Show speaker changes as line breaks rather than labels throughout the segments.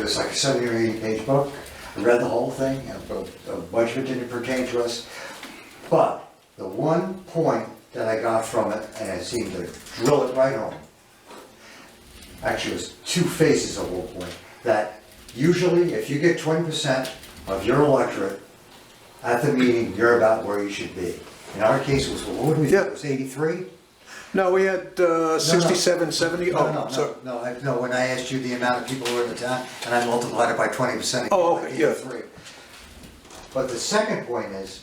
was like a seven or eight page book. I read the whole thing, and a- a bunch of it didn't pertain to us. But the one point that I got from it, and it seemed to drill it right home, actually it was two phases of one point, that usually if you get twenty percent of your electorate at the meeting, you're about where you should be. In our case, it was, what do we,
Yeah.
it was eighty-three?
No, we had uh, 67, 70,
No, no,
oh, sorry.
no, no, I- no, when I asked you the amount of people who were in the town, and I multiplied it by twenty percent.
Oh, okay, yeah.
But the second point is,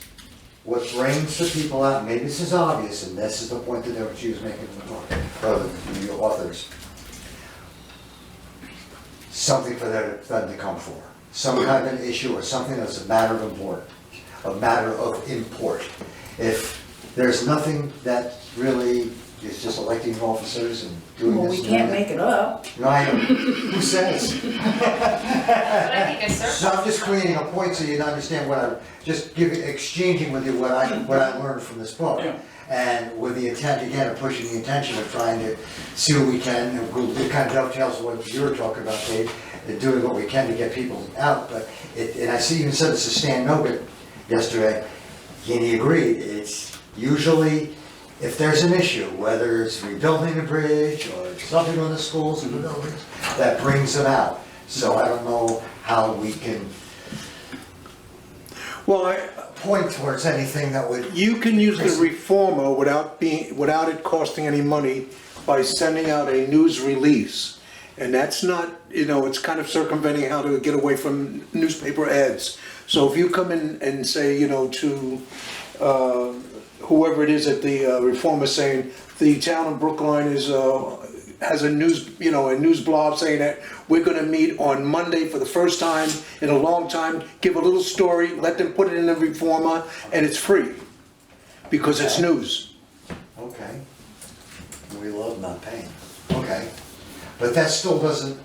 what brings the people out, maybe this is obvious, and this is the point that she was making from the book, or the the authors. Something for them, them to come for, some kind of an issue or something that's a matter of import, a matter of import. If there's nothing that really is just electing officers and doing
Well,
this
we
and
can't
that.
make it up.
No, I don't. who says?
But I think a
So
surplus.
I'm just creating a point so you understand what I'm, just giving, exchanging with you what I, what I learned from this book. And with the intent, again, of pushing the intention of trying to see what we can, and we'll- it kind of dovetails what you were talking about, Dave, and doing what we can to get people out, but it, and I see you said this to Stan Nogan yesterday, and he agreed, it's usually, if there's an issue, whether it's rebuilding a bridge or something on the schools or the buildings, that brings them out. So I don't know how we can
Well, I-
point towards anything that would,
you can use the reformer without being, without it costing any money by sending out a news release. And that's not, you know, it's kind of circumventing how to get away from newspaper ads. So if you come in and say, you know, to uh, whoever it is at the uh, reformer saying, the town of Brookline is, uh, has a news, you know, a news blog saying that we're gonna meet on Monday for the first time in a long time, give a little story, let them put it in the reformer, and it's free, because it's news.
okay. We love not paying, okay. But that still doesn't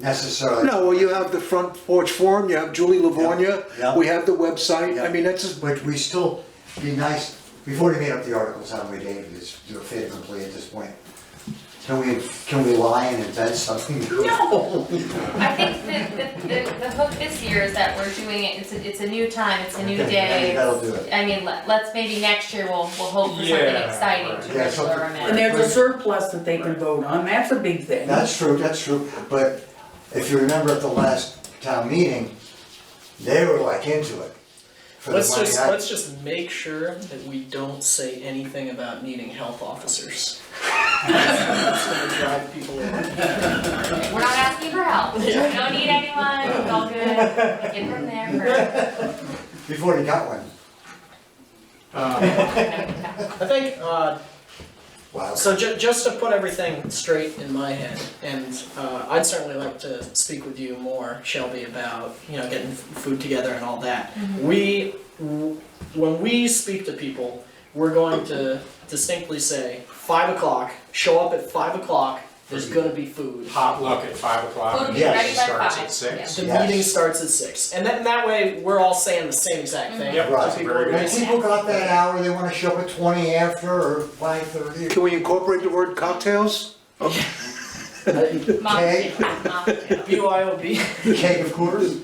necessarily.
No, well, you have the front porch forum, you have Julie
Yeah.
Livornia, we have the website, I
Yeah.
mean, that's, as-
But we still, be nice, we've already made up the articles, haven't we, Dave, it's, you're fit and complete at this point. Can we, can we lie and invent something?
No. I think the, the, the, the hook this year is that we're doing it, it's a, it's a new time, it's a new
Okay,
day.
that'll do it.
I mean, let, let's maybe next year we'll, we'll hope for something
Yeah,
exciting
right.
to
Yeah,
really lure
something-
'em in.
And there's a surplus that they can vote on, that's a big thing.
That's true, that's true, but if you remember at the last town meeting, they were like into it. for the
Let's
money.
just,
I-
let's just make sure that we don't say anything about needing health officers. That's gonna drive people away.
We're not asking for help, we don't need anyone, it's all good, get from there
We've already got one,
Um,
for.
I think, uh,
wow.
so ju- just to put everything straight in my head, and, uh, I'd certainly like to speak with you more, Shelby, about, you know, getting f- food together and all that. We, w- when we speak to people, we're going to distinctly say, five o'clock, show up at five o'clock, there's gonna be food.
potluck at five o'clock,
Food
will
and
be
it
ready by
starts
five,
at six.
yeah.
The
Yes.
meeting starts at six, and then that way, we're all saying the same exact thing.
Yep,
So
that's
people
very
are
good.
When
gonna-
people got that hour, they wanna show up at twenty after or five thirty.
can we incorporate the word cocktails?
Mocktail, mocktail.
BYOB.
Cake of course.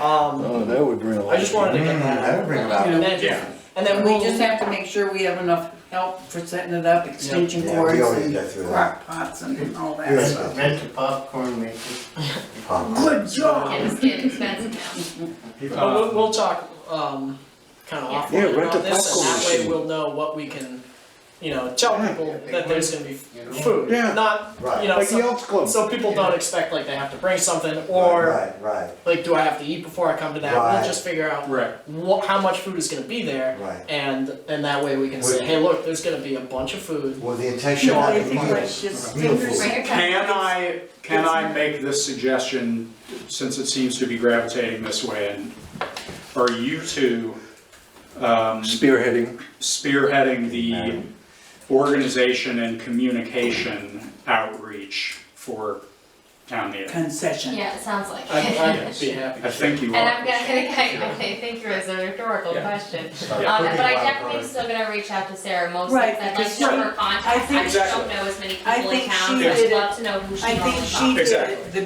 Um,
Oh, that would bring a
I just wanted to get
Mm,
that.
that would bring about.
You
And
know,
Yeah.
then, and then
We just
we'll,
have to make sure we have enough help for setting it up, extension
Yeah, we
cords
already
and
got through that.
crock pots and all that
Yes.
stuff.
Rent a popcorn maker.
Good
Yeah,
job!
It's getting expensive now.
but we'll, we'll talk, um, kind of
Yeah,
offline
rent
about
a
this, and
popcorn
that way
machine.
we'll know what we can, you know, tell people that there's gonna be food,
Yeah.
not,
Right.
you know,
Like the
so,
Elks Club.
so people don't expect like they have to bring something, or
Right, right,
like, do I have to eat before I come to that?
Right.
We'll just figure out
Right.
what, how much food is gonna be there,
right.
and, and that way we can say,
Wait.
hey, look, there's gonna be a bunch of food,
Well, the intention
No,
of
I
the
think
point
let's
is
just
beautiful.
Bring your
Can
cupcakes.
I, can I make this suggestion, since it seems to be gravitating this way, and are you two um,
Spearheading.
spearheading the organization and communication outreach for town meeting?
Concession.
Yeah, it sounds like
I'd,
it.
I'd be happy.
I think you are.
And I'm gonna, gonna, I think you're, it's a rhetorical
Yeah.
question.
Start
Um,
cooking
but I
wild
definitely am
cards.
still gonna reach out to Sarah Moses,
Right,
I'd like
because
to know
she-
her
I
contacts,
think-
I just don't know as many
I
people in
think she
town, so
did
I'd
it-
love to know who she
I
knows
think she did
Exactly.
it the